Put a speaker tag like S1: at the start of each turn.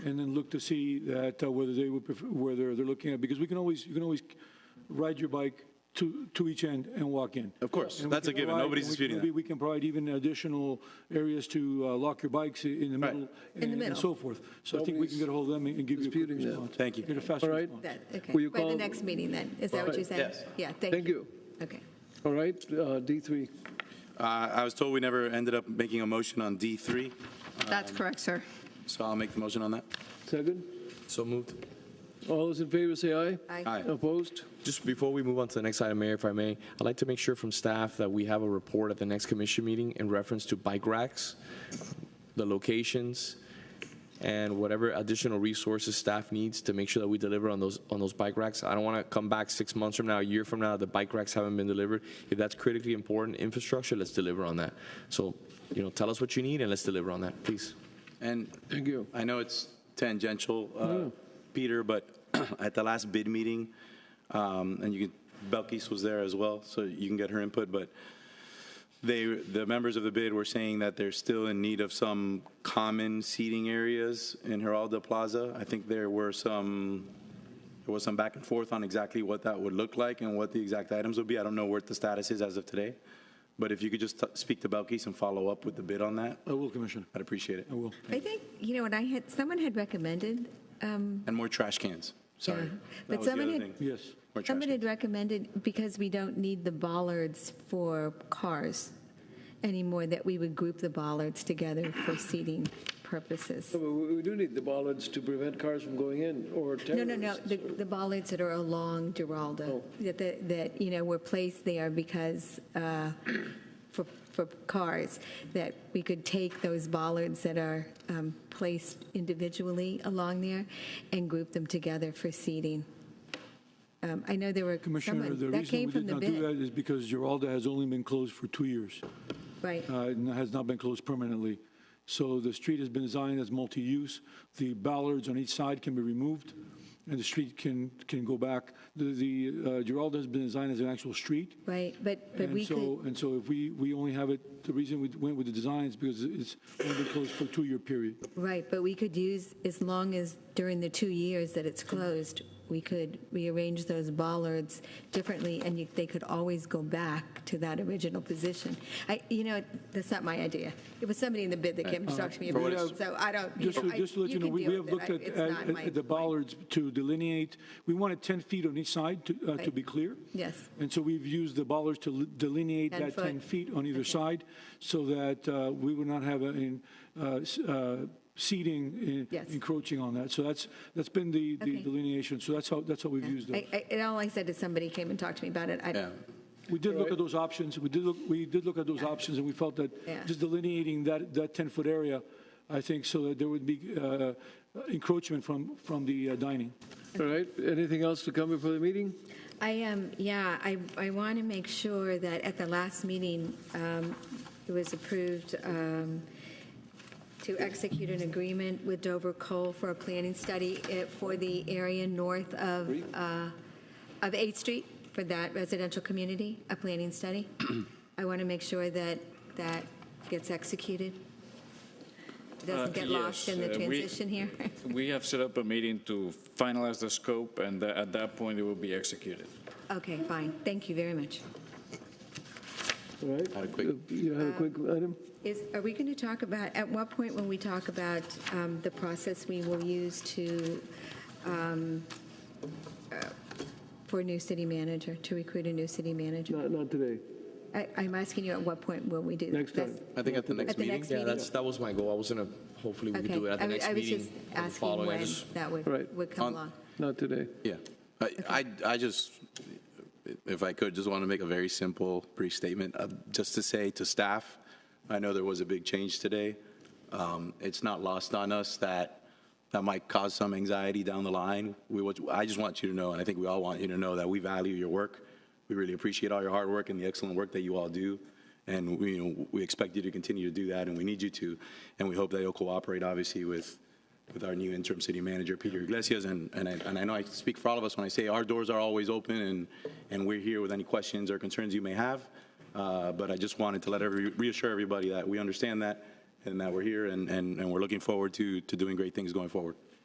S1: and then look to see that uh, whether they would, prefer- whether they're looking at, because we can always, you can always ride your bike to, to each end and walk in.
S2: Of course,
S1: And we
S2: that's a
S1: can
S2: given.
S1: provide-
S2: Nobody's
S1: and we-
S2: disputing
S1: maybe
S2: that.
S1: we can provide even additional areas to uh, lock your bikes i- in the
S2: Right.
S1: middle.
S3: the
S1: and-
S3: middle.
S1: And so forth. So I think we can get a hold of them and and give you a quick
S4: disputing that.
S1: response.
S2: Thank you.
S1: Get a faster
S4: All right.
S1: response.
S3: That, okay.
S4: Will you
S3: By the
S4: call-
S3: next meeting then, is that what you said?
S2: Yes.
S3: Yeah, thank you.
S4: Thank you.
S3: Okay.
S4: All right, uh, D3.
S2: Uh, I was told we never ended up making a motion on D3, Um,
S5: That's correct, sir.
S2: so I'll make the motion on that.
S4: Second.
S6: So moved.
S4: All those in favor say aye.
S3: Aye.
S2: Aye.
S4: Opposed?
S6: Just before we move on to the next item, Mayor, if I may, I'd like to make sure from staff that we have a report at the next commission meeting in reference to bike racks, the locations, and whatever additional resources staff needs to make sure that we deliver on those, on those bike racks. I don't want to come back six months from now, a year from now, the bike racks haven't been delivered. If that's critically important infrastructure, let's deliver on that. So, you know, tell us what you need and let's deliver on that, please.
S2: And
S4: Thank you.
S2: I know it's tangential, uh, Peter, but at the last bid meeting, um, and you can, Belkis was there as well, so you can get her input, but they, the members of the bid were saying that they're still in need of some common seating areas in Geraldo Plaza. I think there were some, there was some back and forth on exactly what that would look like and what the exact items would be. I don't know what the status is as of today, but if you could just t- speak to Belkis and follow up with the bid on that,
S1: I will, Commissioner.
S2: I'd appreciate it.
S1: I will.
S3: I think, you know, and I had, someone had recommended, um,
S2: And more trash cans. Sorry.
S3: Yeah.
S2: That
S3: But
S2: was the
S3: someone
S2: other
S3: had-
S2: thing.
S1: Yes.
S2: More trash
S3: someone
S2: cans.
S3: had recommended, because we don't need the bollards for cars anymore, that we would group the bollards together for seating purposes.
S4: We we do need the bollards to prevent cars from going in or
S3: No, no, no,
S4: terrorists.
S3: the, the bollards that are along Geraldo, that- that, that, you know, were placed there because, uh, for, for cars, that we could take those bollards that are um, placed individually along there and group them together for seating. Um, I know there were,
S1: Commissioner, the
S3: someone, that
S1: reason
S3: came
S1: we
S3: from
S1: did
S3: the
S1: not do
S3: bid,
S1: that is because Geralda has only been closed for two years,
S3: right?
S1: uh, and has not been closed permanently. So the street has been designed as multi-use. The ballards on each side can be removed, and the street can, can go back. The- The uh, Geralda has been designed as an actual street,
S3: Right, but, but
S1: and
S3: we could,
S1: so, and so if we, we only have it, the reason we went with the design is because it's only been closed for a two-year period.
S3: right, but we could use, as long as during the two years that it's closed, we could rearrange those bollards differently, and you- they could always go back to that original position. I, you know, that's not my idea. It was somebody in the bid that came and talked to me
S1: Uh, For
S3: about
S1: what
S3: it,
S1: it's-
S3: so I don't, you
S1: Just
S3: know,
S1: to,
S3: I-
S1: just to let you know,
S3: can
S1: we we
S3: deal
S1: have looked
S3: with it.
S1: at,
S3: I- it's not
S1: at
S3: my-
S1: at the bollards to delineate, we wanted 10 feet on each side to, uh, to
S3: Right.
S1: be clear.
S3: Yes.
S1: And so we've used the bollards to li- delineate
S3: 10
S1: that 10
S3: foot.
S1: feet on either side so that uh, we would not have a- in, uh, s- uh, seating in-
S3: Yes.
S1: encroaching on that. So that's, that's been the the
S3: Okay.
S1: delineation. So that's how, that's how we've used
S3: I,
S1: it.
S3: I, and all I said is somebody came and talked to me about it. I,
S2: Yeah.
S1: We did look at those options, we did look, we did look at those options, and we felt that
S3: Yeah.
S1: just delineating that, that 10-foot area, I think, so that there would be uh, encroachment from, from the uh, dining.
S4: All right, anything else to come before the meeting?
S3: I am, yeah, I, I want to make sure that at the last meeting, um, it was approved um, to execute an agreement with Dover Coal for a planning study eh, for the area north of, uh, of 8th Street, for that residential community, a planning study. I want to make sure that that gets executed, doesn't
S7: Uh,
S3: get lost
S7: yes,
S3: in the
S7: uh, we-
S3: transition here.
S7: We have set up a meeting to finalize the scope, and tha- at that point, it will be executed.
S3: Okay, fine, thank you very much.
S4: All right.
S2: Had a quick-
S4: Uh, You had a quick item?
S3: Is, are we going to talk about, at what point when we talk about um, the process we will use to, um, uh, for new city manager, to recruit a new city manager?
S4: Not, not today.
S3: I, I'm asking you, at what point will we do? that?
S4: Next time.
S6: I think at the next
S3: At the
S6: meeting.
S3: next
S6: Yeah,
S3: meeting.
S6: that's, that was my goal. I was gonna, hopefully we could
S3: Okay.
S6: do it at the
S3: I was-
S6: next meeting.
S3: I was just
S6: or the
S3: asking
S6: following. I
S3: when
S6: just-
S3: that
S4: Right.
S3: would, would come
S2: On-
S3: along.
S4: Not today.
S2: Yeah. I, I, I just, if I could, just want to make a very simple, brief statement, uh, just to say to staff, I know there was a big change today. Um, It's not lost on us that that might cause some anxiety down the line. We, want- I just want you to know, and I think we all want you to know, that we value your work. We really appreciate all your hard work and the excellent work that you all do. And we, you know, we expect you to continue to do that, and we need you to. And we hope that you'll cooperate, obviously, with, with our new interim city manager, Peter Iglesias. And, and I, and I know I speak for all of us when I say our doors are always open, and, and we're here with any questions or concerns you may have. Uh, But I just wanted to let every, reassure everybody that we understand that, and that we're here, and, and, and we're looking forward to, to doing great things going forward.